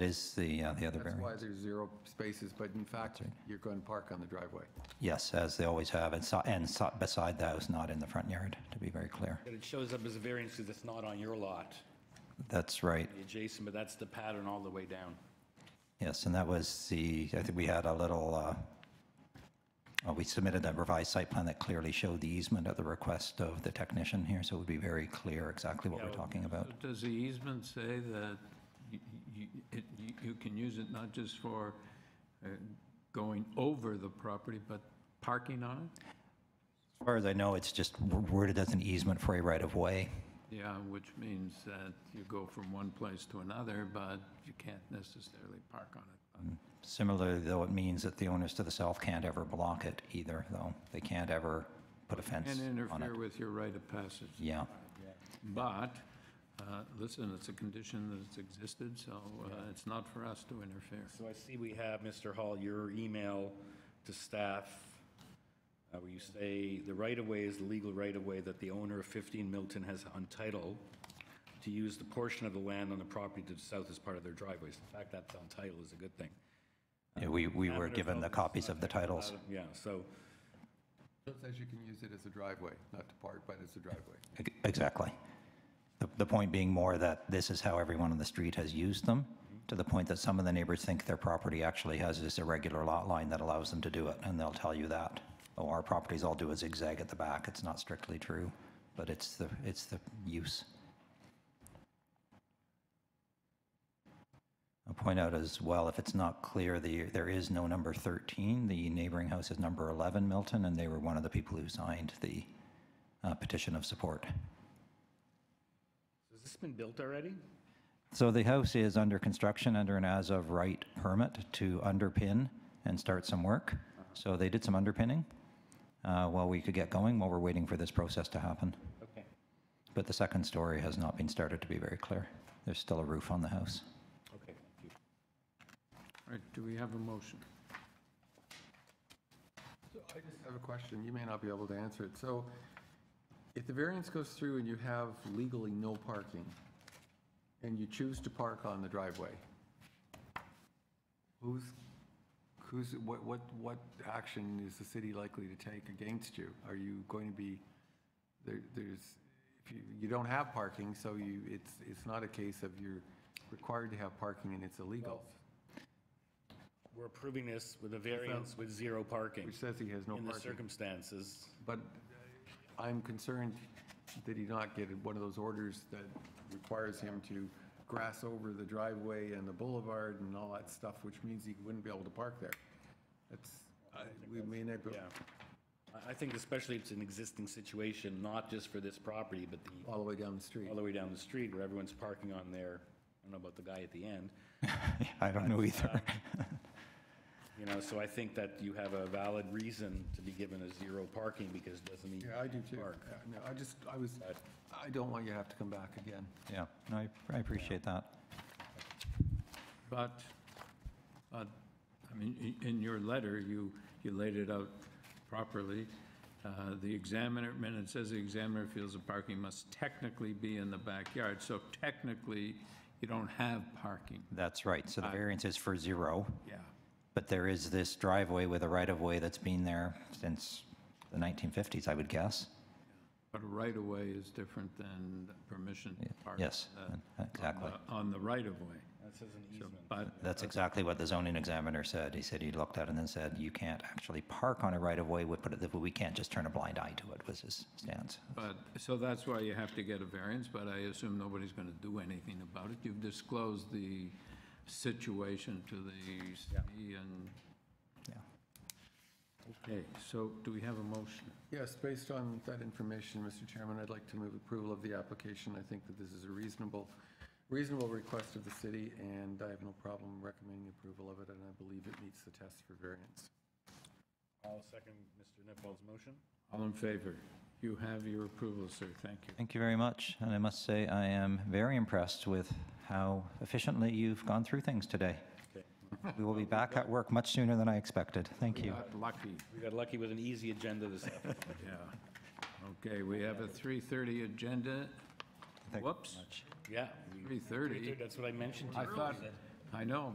is the, uh, the other That's why variant. there's zero spaces, but in fact, you're going to park on the driveway. Yes, as they always have, and so- and so- beside the house, not in the front yard, to be very clear. But it shows up as a variance because it's not on your lot, That's right. the adjacent, but that's the pattern all the way down. Yes, and that was the, I think we had a little, uh, uh, we submitted a revised site plan that clearly showed the easement at the request of the technician here, so it would be very clear exactly what we're talking about. Does the easement say that you- you it- you- you can use it not just for uh, going over the property, but parking on it? As far as I know, it's just worded as an easement for a right-of-way. Yeah, which means that you go from one place to another, but you can't necessarily park on it. Similarly, though, it means that the owners to the south can't ever block it either, though. They can't ever put a fence And on it. interfere with your right of passage. Yeah, But, uh, listen, it's a condition that's existed, so uh, it's not for us to interfere. So I see we have, Mr. Hall, your email to staff, uh, where you say, "The right-of-way is the legal right-of-way that the owner of 15 Milton has on title to use the portion of the land on the property to the south as part of their driveways." The fact that's on title is a good thing. Yeah, we, we were Paragraph given the of copies of the titles. Yeah, so It says you can use it as a driveway, not to park, but as a driveway. Ex- Exactly. The, the point being more that this is how everyone on the street has used them, to the point that some of the neighbors think their property actually has this irregular lot line that allows them to do it, and they'll tell you that. Oh, our properties all do a zigzag at the back. It's not strictly true, but it's the, it's the use. I'll point out as well, if it's not clear, the, there is no number 13. The neighboring house is number 11 Milton, and they were one of the people who signed the uh, petition of support. has this been built already? So the house is under construction under an as of right permit to underpin and start some work. So they did some underpinning uh, while we could get going, while we're waiting for this process to happen. Okay. But the second story has not been started, to be very clear. There's still a roof on the house. Okay, thank you. All right, do we have a motion? I just have a question, you may not be able to answer it. So if the variance goes through and you have legally no parking, and you choose to park on the driveway, who's, who's, what, what, what action is the city likely to take against you? Are you going to be, there, there's, if you, you don't have parking, so you, it's, it's not a case of you're required to have parking and it's illegal, We're approving this with a variance with zero parking which says he has no in parking. the circumstances. But I'm concerned that he not get one of those orders that requires him to grass over the driveway and the boulevard and all that stuff, which means he wouldn't be able to park there. That's, I- we may not, go Yeah. I- I think especially it's an existing situation, not just for this property, but the, all the way down the street. all the way down the street where everyone's parking on their, I don't know about the guy at the end, I don't know either. you know, so I think that you have a valid reason to be given a zero parking because it doesn't mean. Yeah, I do too. Park. Yeah, No, I just, I was, I don't want you to have to come back again. Yeah, no, I- I appreciate that. But, but, I mean, i- in your letter, you, you laid it out properly. Uh, The examiner, and it says the examiner feels the parking must technically be in the backyard, so technically, you don't have parking. That's right. So the variance is for zero, Yeah. but there is this driveway with a right-of-way that's been there since the 1950s, I would guess. But a right-of-way is different than permission to park. Yes, uh, on exactly. the- On the right-of-way. That says an So, easement. But That's exactly what the zoning examiner said. He said he looked at it and then said, you can't actually park on a right-of-way, we put it, we can't just turn a blind eye to it, was his stance. But, so that's why you have to get a variance, but I assume nobody's going to do anything about it. You've disclosed the situation to the city and... Yeah. Okay, so do we have a motion? Yes, based on that information, Mr. Chairman, I'd like to move approval of the application. I think that this is a reasonable, reasonable request of the city, and I have no problem recommending approval of it, and I believe it meets the test for variance. I'll second Mr. Nipal's motion. All in favor? You have your approval, sir. Thank you. Thank you very much, and I must say, I am very impressed with how efficiently you've gone through things today. Okay. We will be back at work much sooner than I expected. Thank you. Got lucky, We got lucky with an easy agenda this afternoon. yeah. Okay, we have a 3:30 agenda. Thank you Whoops, much. Yeah. we- 3:30. That's what I mentioned to I you. thought, I know,